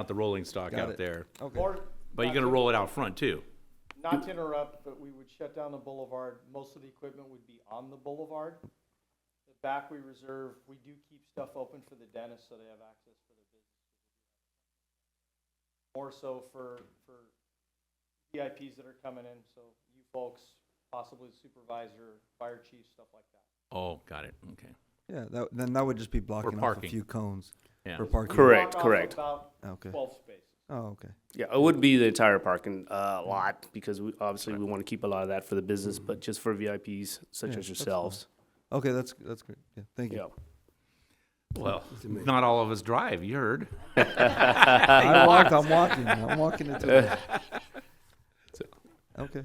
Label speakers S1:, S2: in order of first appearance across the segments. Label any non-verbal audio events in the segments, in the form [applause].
S1: not the rolling stock
S2: Got
S1: out
S2: it.
S1: there.
S2: Okay,
S3: Or-
S1: But you're
S3: not
S1: gonna
S3: to-
S1: roll it out front too.
S3: Not to interrupt, but we would shut down the boulevard. Most of the equipment would be on the boulevard. The back we reserve, we do keep stuff open for the dentists so they have access for their business. More so for, for VIPs that are coming in, so you folks, possibly the supervisor, fire chief, stuff like that.
S1: Oh, got it, okay.
S2: yeah, that, then that would just be blocking off a
S1: parking.
S2: few cones
S1: Yeah.
S2: for parking.
S3: We block
S4: Correct,
S3: off
S4: correct.
S3: About
S2: Okay,
S3: twelve spaces.
S2: oh, okay.
S4: Yeah, it would be the entire parking uh, lot because we, obviously we want to keep a lot of that for the business, but just for VIPs such
S2: Yeah, that's
S4: as
S2: fine.
S4: yourselves.
S2: Okay, that's, that's great, yeah, thank you.
S4: Yeah.
S1: Well, not all of us drive, you heard.
S2: I walked, I'm walking, I'm walking into it.
S1: [laughs]
S2: Okay,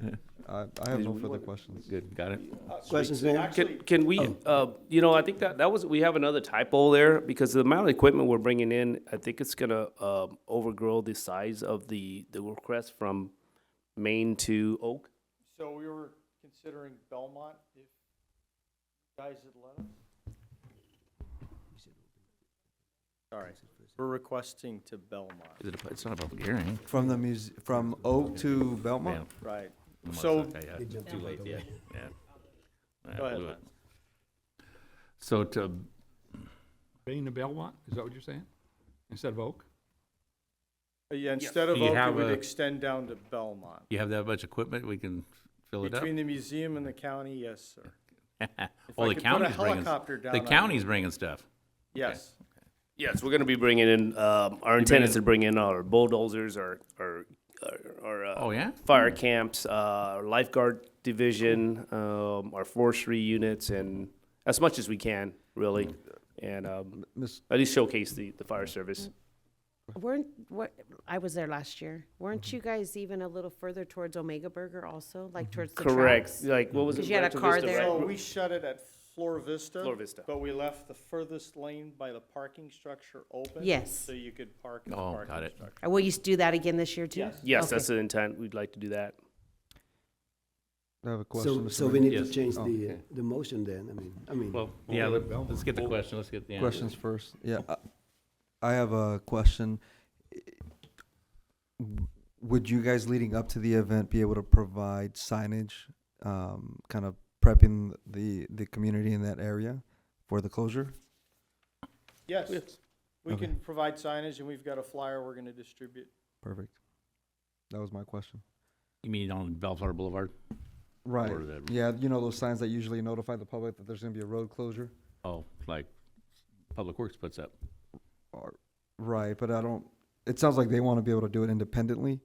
S2: I, I have
S4: Did
S2: no
S4: we
S2: further
S4: want-
S2: questions.
S1: Good, got it.
S5: Questions, ma'am?
S3: Actually,
S4: Can, can we, uh, you know, I think that, that was, we have another typo there because the amount of equipment we're bringing in, I think it's gonna, um, overgrow the size of the, the request from Maine to Oak.
S3: So we were considering Belmont, if you guys had let us.
S5: Sorry, we're requesting to Belmont,
S1: Is it a- It's not a public hearing.
S2: From the muse, from Oak to
S1: Yeah.
S2: Belmont?
S5: right?
S1: I'm like,
S5: So-
S1: okay, yeah, Too late, yeah, yeah. Yeah,
S5: Go ahead,
S1: blew it.
S5: Lance.
S1: So to,
S6: Being the Belmont, is that what you're saying? Instead of Oak?
S5: Uh, Yeah, instead of
S1: Do you
S5: Oak,
S1: have
S5: it would
S1: a-
S5: extend down to Belmont.
S1: you have that much equipment, we can fill it up? [laughs]
S5: Between the museum and the county, yes, sir. If
S1: Well, the
S5: I could put a
S1: county's bringing,
S5: helicopter down,
S1: the
S5: I would.
S1: county's bringing stuff.
S5: Yes,
S4: Yes, we're gonna be bringing in, um, our intent is to bring in our bulldozers or, or, or, uh,
S1: Oh, yeah?
S4: fire camps, uh, our lifeguard division, um, our forestry units, and as much as we can, really. And um,
S2: Mm. Miss,
S4: at least showcase the, the fire
S7: Mm.
S4: service.
S7: Weren't what I was there last year. Weren't you guys even a little further towards Omega Burger also, like towards the
S4: Correct.
S7: tracks?
S4: Like, what was it?
S7: 'Cause you had a
S4: Rancho
S7: car
S4: Vista,
S7: there.
S4: right?
S5: so we shut it at Flor Vista.
S4: Flor Vista.
S5: But we left the furthest lane by the parking structure open.
S7: Yes.
S5: So you could park in the
S1: Oh,
S5: parking
S1: got it.
S5: structure.
S7: And will you do that again this year too?
S5: Yes.
S4: Yes,
S7: Okay.
S4: that's the intent. We'd like to do that.
S2: I have a question.
S8: So,
S2: Mr.
S8: so
S2: Mayor.
S8: we need to
S1: Yes.
S8: change
S2: Oh,
S8: the, uh,
S2: okay.
S8: the motion then, I mean, I mean.
S1: Well, yeah, let- let's get the question, let's get the answer.
S2: Questions first. Yeah, I- I have a question. Would you guys leading up to the event be able to provide signage, um, kind of prepping the, the community in that area for the closure?
S5: Yes, we
S2: Okay.
S5: can provide signage and we've got a flyer we're gonna distribute.
S2: Perfect. That was my question.
S1: You mean on Bellflower Boulevard?
S2: Right.
S1: Or the-
S2: Yeah, you know those signs that usually notify the public that there's gonna be a road closure?
S1: Oh, like Public Works puts up.
S2: Or, right, but I don't, it sounds like they wanna be able to do it independently.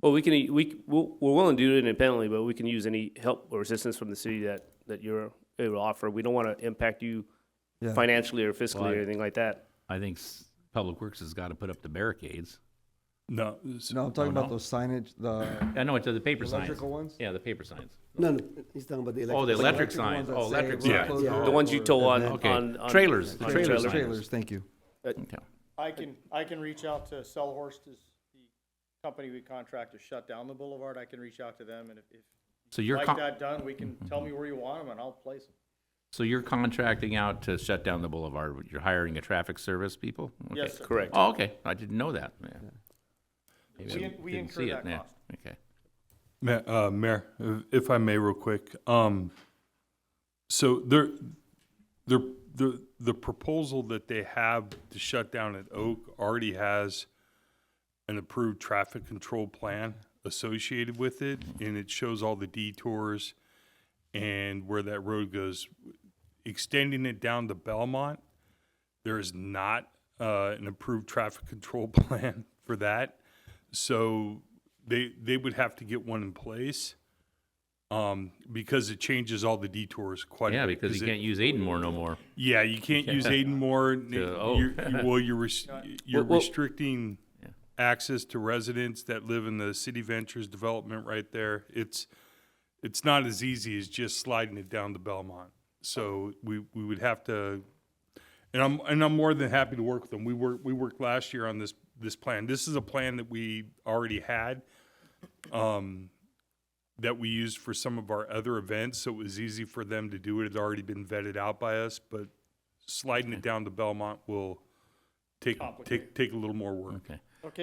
S4: Well, we can, we, we'll- we're willing to do it independently, but we can use any help or assistance from the city that, that you're able to offer. We don't want to impact you
S2: Yeah.
S4: financially or fiscally
S1: Well, I-
S4: or anything like that.
S1: I think s- Public Works has got to put up the barricades.
S9: No. s-
S2: No, I'm talking
S1: Oh,
S2: about
S1: no?
S2: those signage, the
S1: I know it's the paper signs.
S2: electrical ones?
S1: Yeah, the paper signs.
S8: No, no, he's talking about the electric.
S1: Oh, the
S2: Like
S1: electric
S2: ones
S1: signs.
S2: that
S1: Oh,
S2: say
S1: electric
S2: road
S9: signs.
S2: closure
S8: Yeah.
S4: The ones you
S2: or
S4: tow on,
S2: event.
S4: on,
S1: Okay.
S4: on.
S1: Trailers, the
S4: on
S1: trailer
S4: trailer.
S1: signs.
S2: Trailers, thank you.
S1: Okay.
S5: I can, I can reach out to Sellhorst is the company we contract to shut down the boulevard. I can reach out to them and if, if
S1: So
S5: you
S1: you're,
S5: like
S1: con-
S5: that done, we can, tell me where you want them and I'll place them.
S1: so you're contracting out to shut down the boulevard, but you're hiring a traffic service people? Okay.
S5: Yes, sir.
S4: Correct.
S1: Oh, okay, I didn't know that, yeah. Maybe I
S5: We in- we
S1: didn't
S5: incur
S1: see it,
S5: that
S1: yeah.
S5: cost.
S1: Okay.
S9: Ma- uh, Mayor, if I may, real quick, um, so there, there, the, the proposal that they have to shut down at Oak already has an approved traffic control plan associated with it, and it shows all the detours and where that road goes. Extending it down to Belmont, there is not, uh, an approved traffic control [laughs] plan for that. So they, they would have to get one in place, um, because it changes all the detours quite a bit.
S1: Yeah, because you
S9: it-
S1: can't use Aidenmore no more.
S9: yeah, you can't use Aidenmore. n-
S1: To- oh.
S9: you're- you- Well, you're, res- you're
S4: Well- well-
S9: restricting access to residents that live in the City Ventures development right there. It's, it's not as easy as just sliding it down to Belmont. So we, we would have to, and I'm, and I'm more than happy to work with them. We worked, we worked last year on this, this plan. This is a plan that we already had um, that we used for some of our other events, so it was easy for them to do it. It had already been vetted out by us, but sliding it down to Belmont will take, take, take a little more work.
S1: Okay.